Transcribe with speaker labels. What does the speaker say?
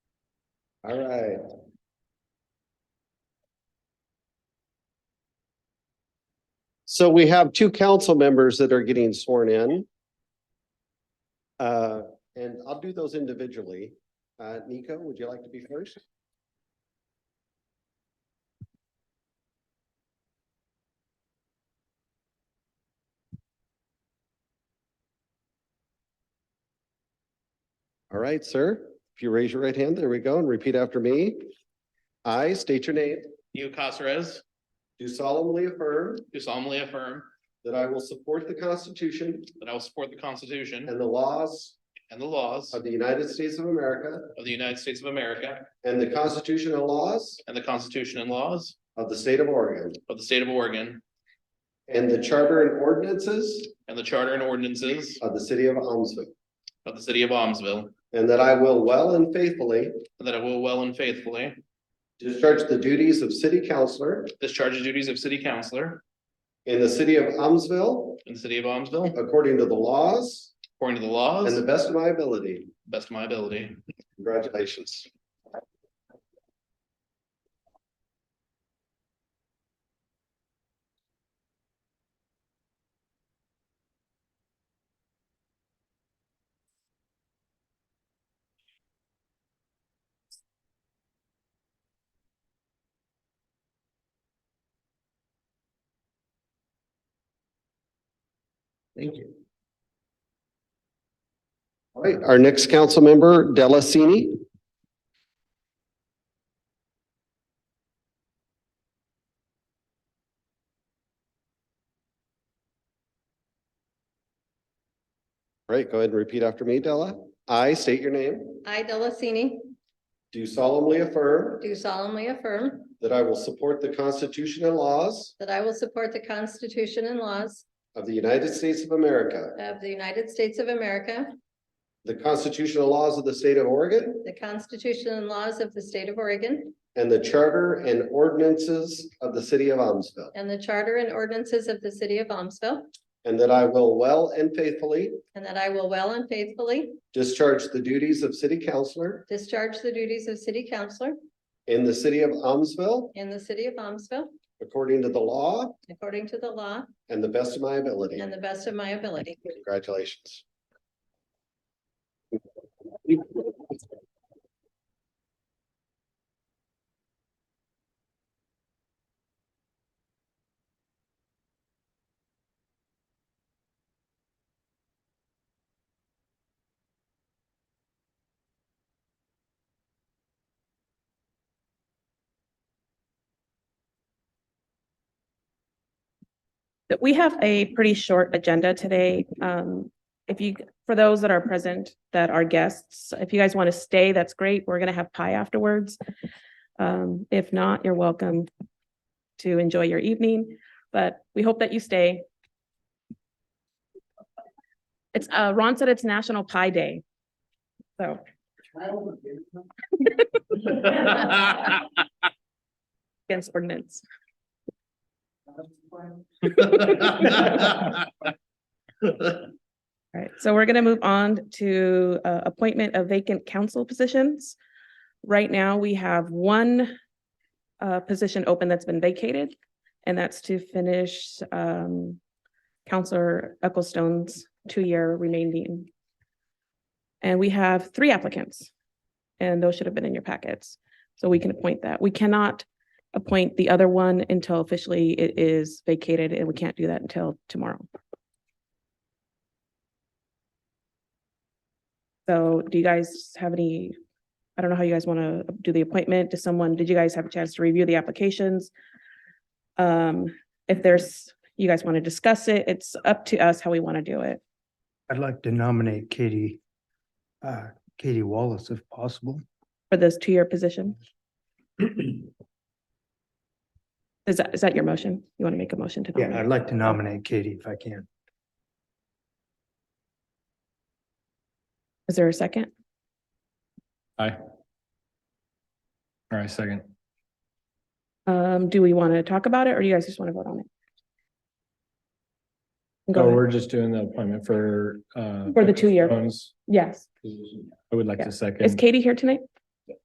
Speaker 1: All right. So we have two council members that are getting sworn in. Uh, and I'll do those individually. Uh, Nico, would you like to be first? All right, sir. If you raise your right hand, there we go, and repeat after me. I state your name,
Speaker 2: Dio Casares,
Speaker 1: do solemnly affirm
Speaker 2: do solemnly affirm
Speaker 1: that I will support the Constitution
Speaker 2: that I will support the Constitution
Speaker 1: and the laws
Speaker 2: and the laws
Speaker 1: of the United States of America
Speaker 2: of the United States of America
Speaker 1: and the Constitution and laws
Speaker 2: and the Constitution and laws
Speaker 1: of the state of Oregon
Speaker 2: of the state of Oregon
Speaker 1: and the charter and ordinances
Speaker 2: and the charter and ordinances
Speaker 1: of the city of Amsoil,
Speaker 2: of the city of Amsoil,
Speaker 1: and that I will well and faithfully
Speaker 2: and that I will well and faithfully
Speaker 1: discharge the duties of city councillor
Speaker 2: discharge the duties of city councillor
Speaker 1: in the city of Amsoil
Speaker 2: in the city of Amsoil
Speaker 1: according to the laws
Speaker 2: according to the
Speaker 1: and
Speaker 2: laws,
Speaker 1: the best of my ability.
Speaker 2: best of my ability.
Speaker 1: Congratulations. Thank you. All right, our next council member, Delacini. All right, go ahead and repeat after me, Della. I state your name.
Speaker 3: I, Delacini,
Speaker 1: Do solemnly affirm
Speaker 3: do solemnly affirm
Speaker 1: that I will support the Constitution and laws
Speaker 3: that I will support the Constitution and laws
Speaker 1: of the United States of America,
Speaker 3: of the United States of America,
Speaker 1: the constitutional laws of the state of Oregon,
Speaker 3: the Constitution and laws of the state of Oregon,
Speaker 1: and the charter and ordinances of the city of Amsoil.
Speaker 3: and the charter and ordinances of the city of Amsoil,
Speaker 1: And that I will well and faithfully
Speaker 3: and that I will well and faithfully
Speaker 1: discharge the duties of city councillor
Speaker 3: discharge the duties of city councillor
Speaker 1: in the city of Amsoil
Speaker 3: in the city of Amsoil
Speaker 1: according to the law
Speaker 3: according to the law
Speaker 1: and the best of my ability.
Speaker 3: and the best of my ability.
Speaker 1: Congratulations.
Speaker 4: that we have a pretty short agenda today. Um, if you, for those that are present, that are guests, if you guys want to stay, that's great. We're gonna have pie afterwards. Um, if not, you're welcome to enjoy your evening, but we hope that you stay. It's, uh, Ron said it's National Pie Day. So, against ordinance. All right, so we're gonna move on to uh, appointment of vacant council positions. Right now, we have one uh, position open that's been vacated, and that's to finish um, Counselor Ecclestone's two-year remaining. And we have three applicants, and those should have been in your packets, so we can appoint that. We cannot appoint the other one until officially it is vacated, and we can't do that until tomorrow. So do you guys have any, I don't know how you guys want to do the appointment to someone. Did you guys have a chance to review the applications? Um, if there's, you guys want to discuss it, it's up to us how we want to do it.
Speaker 5: I'd like to nominate Katie, uh, Katie Wallace if possible.
Speaker 4: for this two-year position? Is that, is that your motion? You want to make a motion to
Speaker 5: Yeah, I'd
Speaker 4: nominate?
Speaker 5: like to nominate Katie if I can.
Speaker 4: Is there a second?
Speaker 6: All right, second.
Speaker 4: Um, do we want to talk about it or do you guys just want to vote on it? Go
Speaker 6: So
Speaker 4: ahead.
Speaker 6: Oh, we're just doing the appointment for, uh.
Speaker 4: For the two-year.
Speaker 6: Bones.
Speaker 4: Yes.
Speaker 6: I would like
Speaker 4: Yeah.
Speaker 6: to
Speaker 4: Is
Speaker 6: second.
Speaker 4: Katie here tonight?